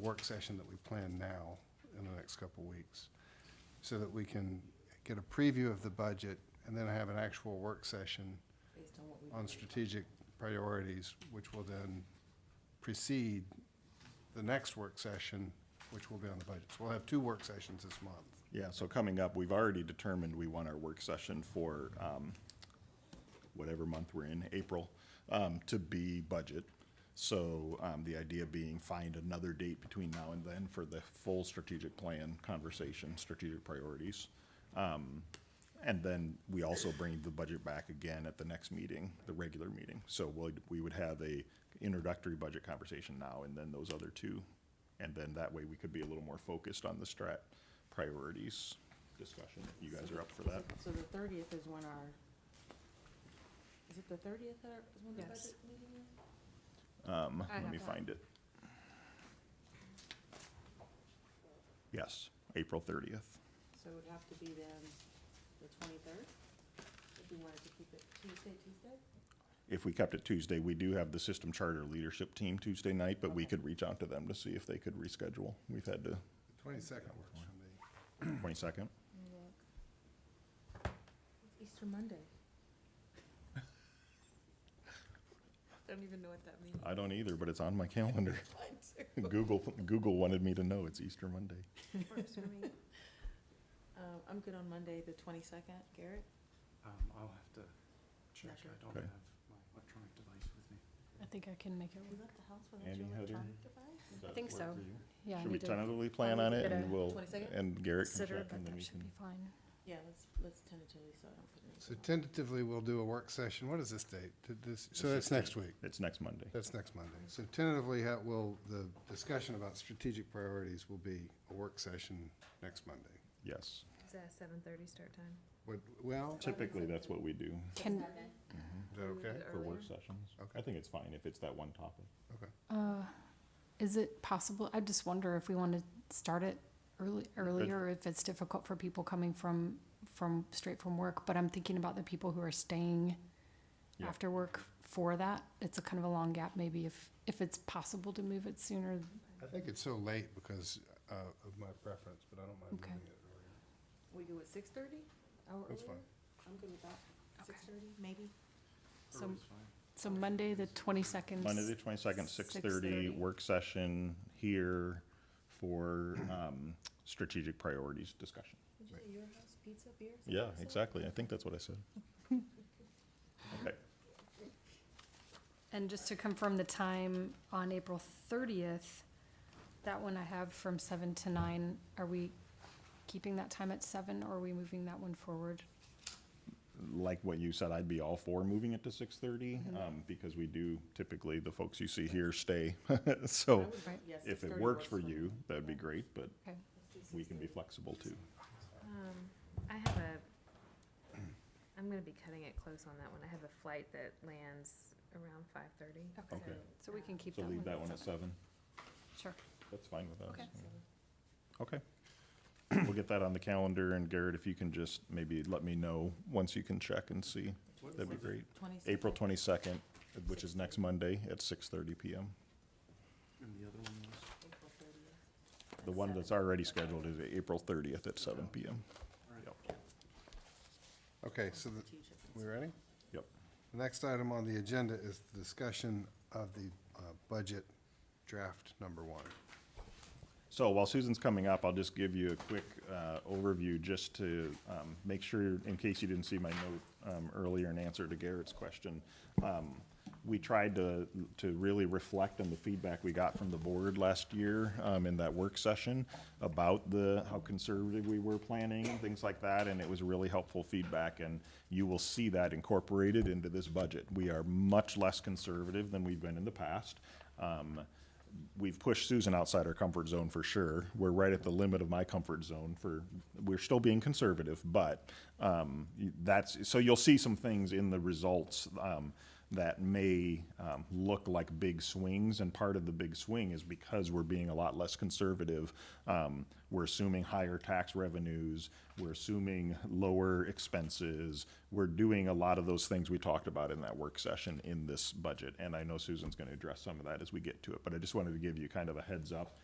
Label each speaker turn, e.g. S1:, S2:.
S1: work session that we plan now in the next couple of weeks, so that we can get a preview of the budget and then have an actual work session
S2: based on what we.
S1: on strategic priorities, which will then precede the next work session, which will be on the budget. So we'll have two work sessions this month.
S3: Yeah, so coming up, we've already determined we want our work session for um, whatever month we're in, April, um, to be budget. So um, the idea being find another date between now and then for the full strategic plan conversation, strategic priorities. Um, And then we also bring the budget back again at the next meeting, the regular meeting. So we'll, we would have a introductory budget conversation now and then those other two. And then that way we could be a little more focused on the strat priorities discussion. You guys are up for that?
S2: So the thirtieth is when our, is it the thirtieth that our- is when the
S4: Yes.
S2: budget meeting is?
S3: Um,
S4: I
S3: let
S4: have
S3: me
S4: that.
S3: find it. Yes, April thirtieth.
S2: So it would have to be then the twenty-third, if we wanted to keep it Tuesday, Tuesday?
S3: If we kept it Tuesday, we do have the system charter leadership team Tuesday night, but we
S2: Okay.
S3: could reach out to them to see if they could reschedule. We've had to,
S1: Twenty-second works for me.
S3: twenty-second.
S2: Easter Monday.
S4: Don't even know what that means.
S3: I don't either, but it's on my calendar. Google, Google wanted me to know it's Easter Monday.
S2: Um, I'm good on Monday, the twenty-second. Garrett?
S5: Um, I'll have to check.
S2: Not
S5: I don't
S3: Okay.
S5: have my electronic device with me.
S6: I think I can make it
S2: You
S6: work.
S2: left the house
S3: Annie,
S2: without your
S3: Heather?
S2: electronic device?
S3: Does that
S6: think
S3: work
S6: so.
S3: for you?
S6: Yeah, I
S3: Should we
S6: need to
S3: tentatively plan on it and
S6: Consider-
S3: we'll,
S2: 22nd?
S3: and Garrett can
S6: consider,
S3: check
S6: but
S3: and then
S6: that
S3: we
S6: should
S3: can.
S6: be fine.
S2: Yeah, let's, let's tentatively, so I don't put any.
S1: So tentatively, we'll do a work session. What is this date? Did this- So that's next week.
S3: It's next Monday.
S1: That's next Monday. So tentatively, how will, the discussion about strategic priorities will be a work session next Monday.
S3: Yes.
S4: Is that seven thirty start time?
S1: Would, well, is
S3: Typically, that's what we do.
S6: Can,
S1: that okay?
S3: For work sessions?
S1: Okay.
S3: I think it's fine if it's that one topic.
S6: uh, is it possible, I just wonder if we want to start it early, earlier, or if it's difficult for people coming from, from, straight from work, but I'm thinking about the people who are staying
S3: Yeah.
S6: after work for that. It's a kind of a long gap, maybe if, if it's possible to move it sooner,
S1: I think it's so late because uh, of my preference, but I don't mind
S6: Okay.
S1: doing it earlier.
S2: We do it six thirty?
S1: That's fine.
S2: I'm good with that. Six thirty, maybe?
S6: so,
S5: Early's fine.
S6: so Monday, the twenty-second.
S3: Monday, the twenty-second, six-thirty,
S6: 6:30.
S3: work session here for, um, strategic priorities discussion.
S2: Would you say your house, pizza, beer? something
S3: Yeah,
S2: like that?
S3: exactly. I think that's what I said. Okay,
S6: And just to confirm the time on April thirtieth, that one I have from seven to nine, are we keeping that time at seven or are we moving that one forward?
S3: like what you said, I'd be all for moving it to six-thirty, um, because we do typically, the folks you see here stay.
S2: I
S3: So
S2: would-
S6: Right.
S2: yeah,
S3: oh, if it
S2: 6:30
S3: works for
S2: me.
S3: you, that'd be great, but
S6: Okay,
S2: Let's do
S3: we can be
S2: 6:30.
S3: flexible too.
S4: Um, I have a, I'm gonna be cutting it close on that one. I have a flight that lands around five thirty.
S6: Okay.
S3: Okay.
S6: so we can keep
S3: So
S6: that
S3: leave
S6: one
S3: that one
S6: at
S3: at
S6: seven.
S3: seven.
S6: Sure,
S3: That's fine with us.
S6: Okay.
S3: yeah. Okay. We'll get that on the calendar, and Garrett, if you can just maybe let me know once you can check and see,
S5: What-
S3: that'd be
S5: what the-
S3: great.
S2: 26.
S3: April twenty-second, which is next Monday at six thirty PM.
S5: And the other one was?
S2: April 30th.
S3: The one that's already scheduled is April thirtieth at seven PM.
S5: All right.
S1: Okay, so the-
S2: Two chickens.
S1: we ready?
S3: Yep.
S1: The next item on the agenda is the discussion of the uh, budget draft number one.
S3: So while Susan's coming up, I'll just give you a quick uh, overview just to um, make sure, in case you didn't see my note um, earlier in answer to Garrett's question. Um, We tried to, to really reflect on the feedback we got from the board last year um, in that work session about the, how conservative we were planning and things like that, and it was really helpful feedback, and you will see that incorporated into this budget. We are much less conservative than we've been in the past. Um, we've pushed Susan outside her comfort zone for sure. We're right at the limit of my comfort zone for, we're still being conservative, but um, y- that's, so you'll see some things in the results um, that may um, look like big swings, and part of the big swing is because we're being a lot less conservative. Um, We're assuming higher tax revenues, we're assuming lower expenses, we're doing a lot of those things we talked about in that work session in this budget. And I know Susan's going to address some of that as we get to it, but I just wanted to give you kind of a heads up